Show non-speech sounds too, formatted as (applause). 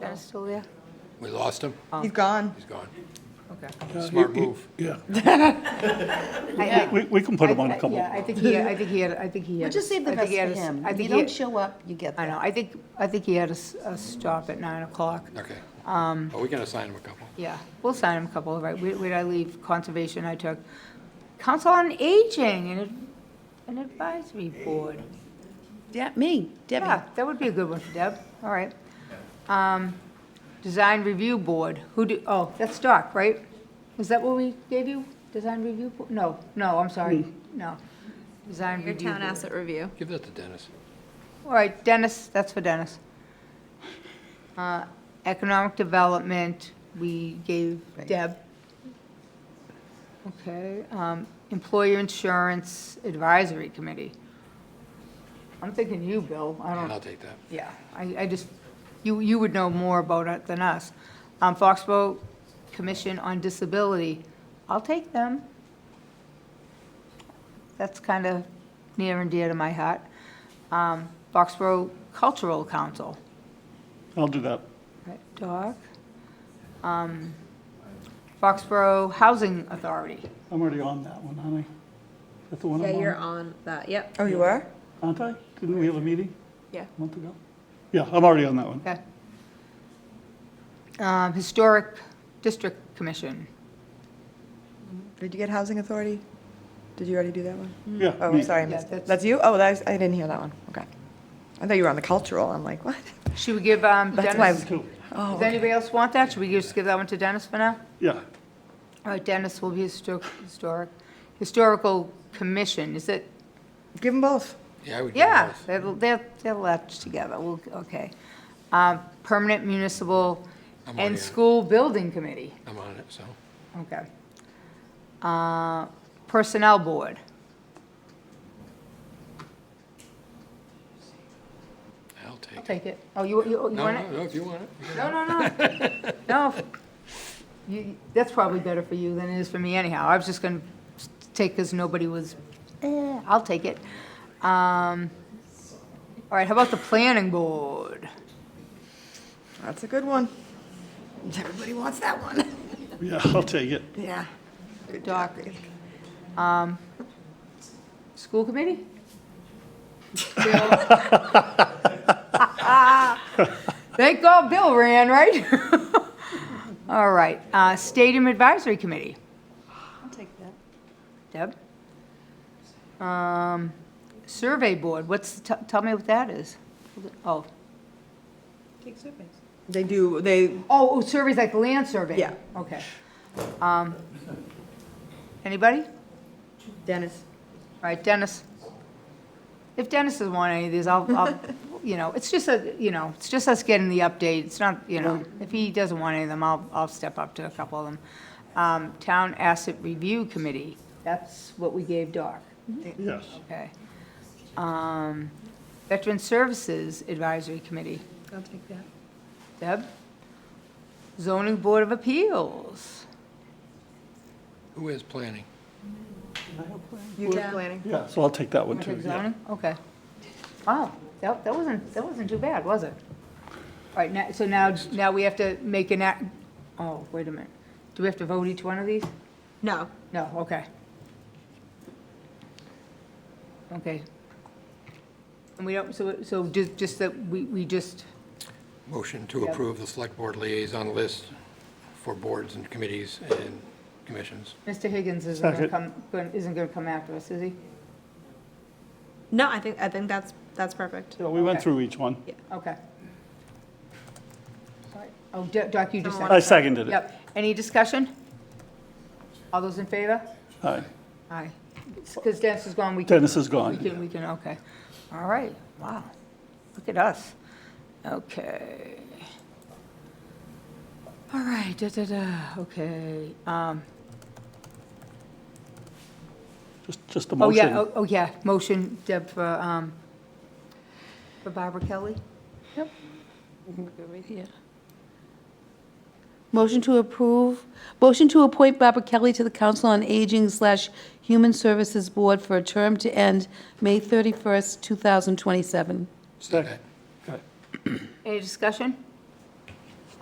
John's still there? We lost him? He's gone. He's gone. Okay. Uh, Smart move. Yeah, I- I- we, we can put him on I- a couple. Yeah, I think he, had- I think he had, I think he had. But just save the I think best he for had a s- him. I If you think he don't had, show up, you get I know, that. I think, I think he had a, s- a stop at 9 o'clock. Okay. Um. But we can assign him a couple. Yeah, we'll sign him a couple, right? Where where did I leave conservation? I took Council on Aging and ad- an advisory board. Yeah, me, Yeah, Debbie. that would be a good one for Deb, all right. Um, Design Review Board, who do, oh, that's Doc, right? Was that what we gave you? Design Review? Bo- No, no, I'm sorry, no. Design Your Review town Board. asset review. Give that to Dennis. All right, Dennis, that's for Dennis. Uh, Economic Development, we gave Deb. Okay, um, Employer Insurance Advisory Committee. I'm thinking you, Bill, I don't. I'll take that. Yeah, I, I just, you, you would know more about it than us. Um, Foxborough Commission on Disability, I'll take them. That's kind of near and dear to my heart. Um, Foxborough Cultural Council, I'll do that. right, Doc? Um, Foxborough Housing Authority, I'm already on that one, aren't I? That's the one Yeah, I'm you're on, on that, yep. Oh, you are? aren't I? Didn't we have a meeting Yeah. a month ago? Yeah, I'm already on that one. okay. Um, Historic District Commission, Did you get housing authority? Did you already do that one? Mm. Yeah. Oh, me. I'm sorry, I Yeah, missed that's- it. That's you? Oh, that's, I didn't hear that one. Okay. I thought you were on the cultural. I'm like, what? (laughs) she would give um, That's why I Dennis, was- Two. does anybody else want that? Should we just give that one to Dennis for now? Yeah, All right, Dennis will be histo- historic, historical commission, is it? Give them both. Yeah, I would give him Yeah, both. they're, they're, they're left together, we'll, okay. Um, Permanent municipal I'm on and it. school building committee, I'm on it, so. okay. Uh, Personnel board, I'll take I'll it. take it. Oh, you, you, you No, want no, it? no, if you want it. you No, no, no, no. You, that's probably better for you than it is for me anyhow. I was just gonna s- take, because nobody was, eh, I'll take it. Um, all right, how about the planning board? That's a good one. Everybody wants that one. yeah, I'll take it. Yeah. Doc. Um, School committee? Bill. Thank God Bill ran, right? (laughs) All right, uh, stadium advisory committee. I'll take that. Deb? Um, Survey Board, what's, t- tell me what that is. Oh, They do, they, oh, oh, surveys like the land survey? Yeah. Okay. Um, Anybody? All Dennis. right, Dennis. If Dennis doesn't want any of these, I'll, I'll, (laughs) you know, it's just a, you know, it's just us getting the update. It's not, you know, if he doesn't want any of them, I'll, I'll step up to a couple of them. Um, Town Asset Review Committee, that's what we gave Doc. Yes. Okay. Um, Veteran Services Advisory Committee, I'll take that. Deb? Zoning Board of Appeals, Who is planning? You do planning. Yeah, so I'll take that one too. yeah. zoning, okay. Wow, that, that wasn't, that wasn't too bad, was it? All right, now, so now, now we have to make an act, oh, wait a minute. Do we have to vote each one of these? No. No, okay. Okay. And we don't, so, so just, just that, we, we just, Motion to Yep. approve the select board liaison list for boards and committees and commissions. Mr. Higgins isn't gonna Second. come, gonna- isn't gonna come after us, is he? No, I think, I think that's, that's perfect. Yeah, we went Okay. through each one. Okay. All right. Oh, Do- Doc, you just Someone said. I seconded it. Yep. Any discussion? All those in favor? Aye. Aye. Because Dennis is gone, we can. Dennis is We gone. can, we can, okay. All right, wow. Look at us. Okay. All right, da-da-da, okay. Um, Just, just a Oh, motion. yeah, oh, oh, yeah, motion, Deb, for, um, for Barbara Kelly? Motion to approve, motion to appoint Barbara Kelly to the Council on Aging slash Human Services Board for a term to end May 31st, 2027. Second. Any discussion?